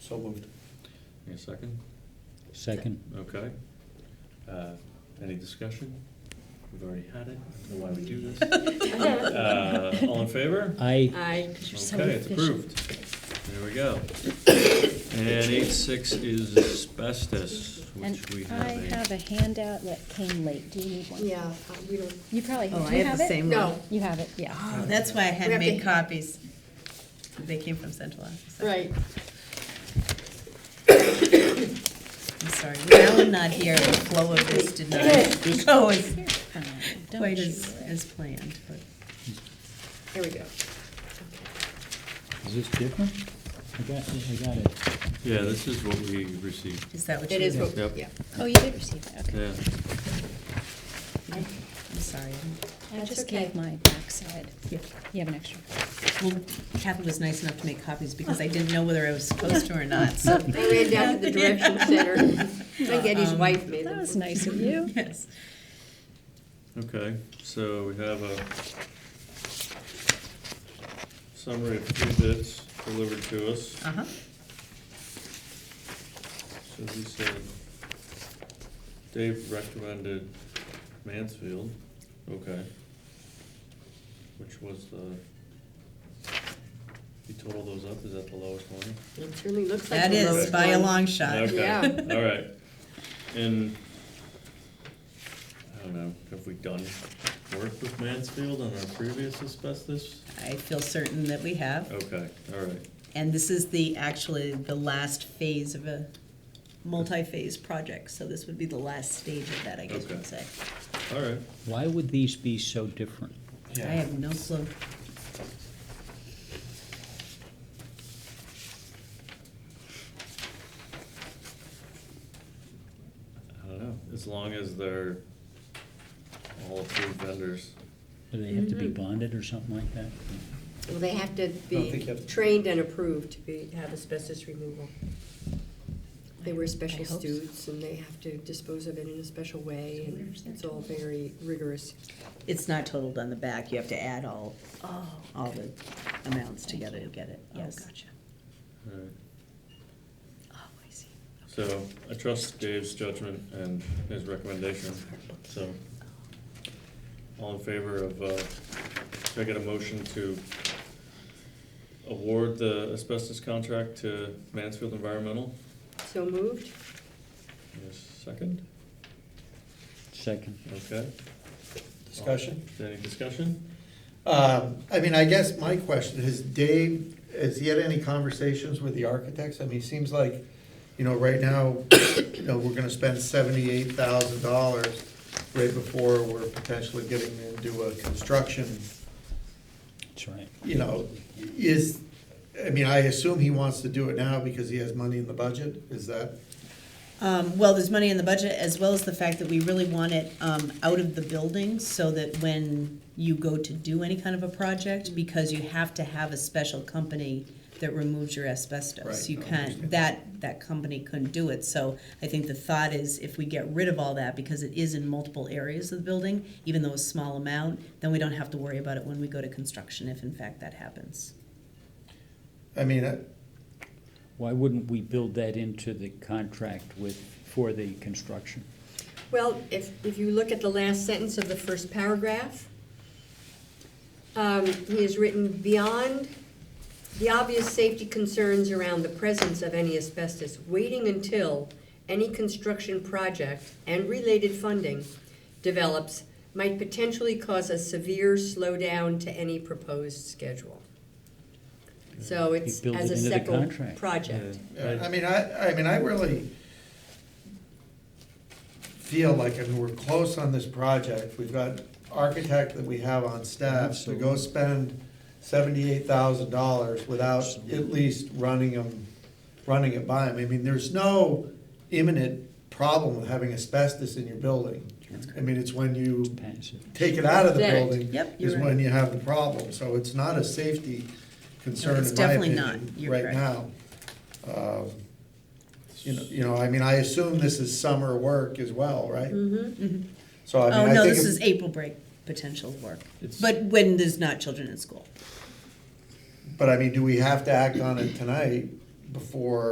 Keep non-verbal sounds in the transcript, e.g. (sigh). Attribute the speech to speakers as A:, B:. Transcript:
A: So moved.
B: Any second?
C: Second.
B: Okay. Uh, Any discussion? We've already had it. I don't know why we do
C: (laughs)
B: this. Uh, All in favor?
C: I,
D: I.
B: Okay, it's approved. There we go. And eight six is asbestos,
E: (laughs) And
B: which we
E: I
B: have
E: have
B: a.
E: a handout that came late. Do you need one?
D: Yeah, uh, we don't,
E: You probably, do
F: Oh, I
E: you
F: have
E: have
F: the
E: it?
F: same one.
D: no,
E: You have it, yeah.
F: Oh, that's why I
D: We
F: had
D: have
F: made
D: to-
F: copies. They came from central office.
D: right.
F: I'm sorry, with Alan not here, the flow of this did not (laughs) go as,
E: Uh, Don't
F: quite
E: you
F: as,
E: worry.
F: as planned, but.
D: There we go.
C: is this different? I got, I got it.
B: Yeah, this is what we received.
F: Is that what you?
D: It is,
F: did?
D: what-
B: Yep.
D: yeah.
E: Oh, you did receive that, okay.
B: Yeah.
D: I-
F: I'm sorry.
E: I
D: That's
E: just
D: okay.
E: gave my backside.
F: Yeah. Oh,
E: You have an
F: (laughs)
E: extra.
F: Well, Kathy was nice enough to make copies because I didn't know whether I was
D: (laughs)
F: supposed to or not, so.
D: I ran down to the direction center.
F: (laughs)
D: My daddy's
F: Um,
D: wife made them.
E: That was nice of you.
F: (laughs) Yes.
B: Okay, so we have a summary of three bits delivered to us.
F: Uh-huh.
B: So he said, Dave recommended Mansfield, okay. Which was the, you total those up, is that the lowest one?
D: It certainly looks like.
F: That
D: the
F: is
D: lowest
F: by a
D: one.
F: long shot.
D: Yeah.
B: Okay, (laughs) all right. And, I don't know, have we done work with Mansfield on our previous asbestos?
F: I feel certain that we have.
B: Okay, all right.
F: And this is the, actually, the last phase of a multi-phase project, so this would be the last stage of that, I guess
B: Okay.
F: you'd say.
B: All right,
C: Why would these be so different?
F: I have no clue.
B: I don't know, as long as they're all approved vendors.
C: Do they have to
D: Mm-hmm.
C: be bonded or something like that?
D: Well, they have to
A: don't think you
D: be
A: have to-
D: trained and approved to be, have asbestos removal. They wear
F: I
D: special
F: hope so.
D: suits and they have to dispose of it in a special way and it's all very rigorous.
F: It's not totaled on the back, you have to add all, all the amounts together to get it,
E: Oh,
F: yes.
E: gotcha.
B: All right.
F: Oh, I see.
B: So I trust Dave's judgment and his recommendation, so. All in favor of, uh, should I get a motion to award the asbestos contract to Mansfield Environmental?
D: So moved?
B: Yes, second,
C: Second.
B: okay.
A: Discussion?
B: Any discussion?
A: Um, I mean, I guess my question is, Dave, has he had any conversations with the architects? I mean, it seems like, you know, right now, you know, we're gonna spend seventy-eight thousand dollars right before we're potentially getting into a construction,
C: That's right.
A: you know, is, I mean, I assume he wants to do it now because he has money in the budget, is that?
F: Um, well, there's money in the budget, as well as the fact that we really want it, um, out of the building, so that when you go to do any kind of a project, because you have to have a special company that removes your asbestos.
A: Right,
F: You
A: no, I
F: can't,
A: understand.
F: that, that company couldn't do it, so I think the thought is, if we get rid of all that, because it is in multiple areas of the building, even though a small amount, then we don't have to worry about it when we go to construction, if in fact that happens.
A: I mean, I-
C: Why wouldn't we build that into the contract with, for the construction?
D: Well, if, if you look at the last sentence of the first paragraph, um, he has written, "Beyond the obvious safety concerns around the presence of any asbestos, waiting until any construction project and related funding develops might potentially cause a severe slowdown to any proposed schedule." So it's
C: build
D: as
C: it
D: a
C: into the
D: separate
C: contract.
D: project.
A: Yeah, I mean, I, I mean, I really feel like, I mean, we're close on this project, we've got architect that we have on staff, so go
C: Absolutely.
A: spend seventy-eight thousand dollars without at
C: Absolutely.
A: least running them, running it by them. I mean, there's no imminent problem with having asbestos in your building. I mean, it's when you
C: Pass it.
A: take it out of the
D: Right.
A: building
F: Yep,
A: is
F: you're right.
A: when you have the problem, so it's not a safety concern
F: it's
A: in my
F: definitely
A: opinion,
F: not. You're
A: right
F: correct.
A: now. Um, You know, you know, I mean, I assume this is summer work as well, right? So Mm-hmm. I
F: Mm-hmm. Oh,
A: mean, I
F: no,
A: think,
F: this is
A: if-
F: April break potential work,
B: It's-
F: but when there's not children in school.
A: but I mean, do we have to act on it tonight before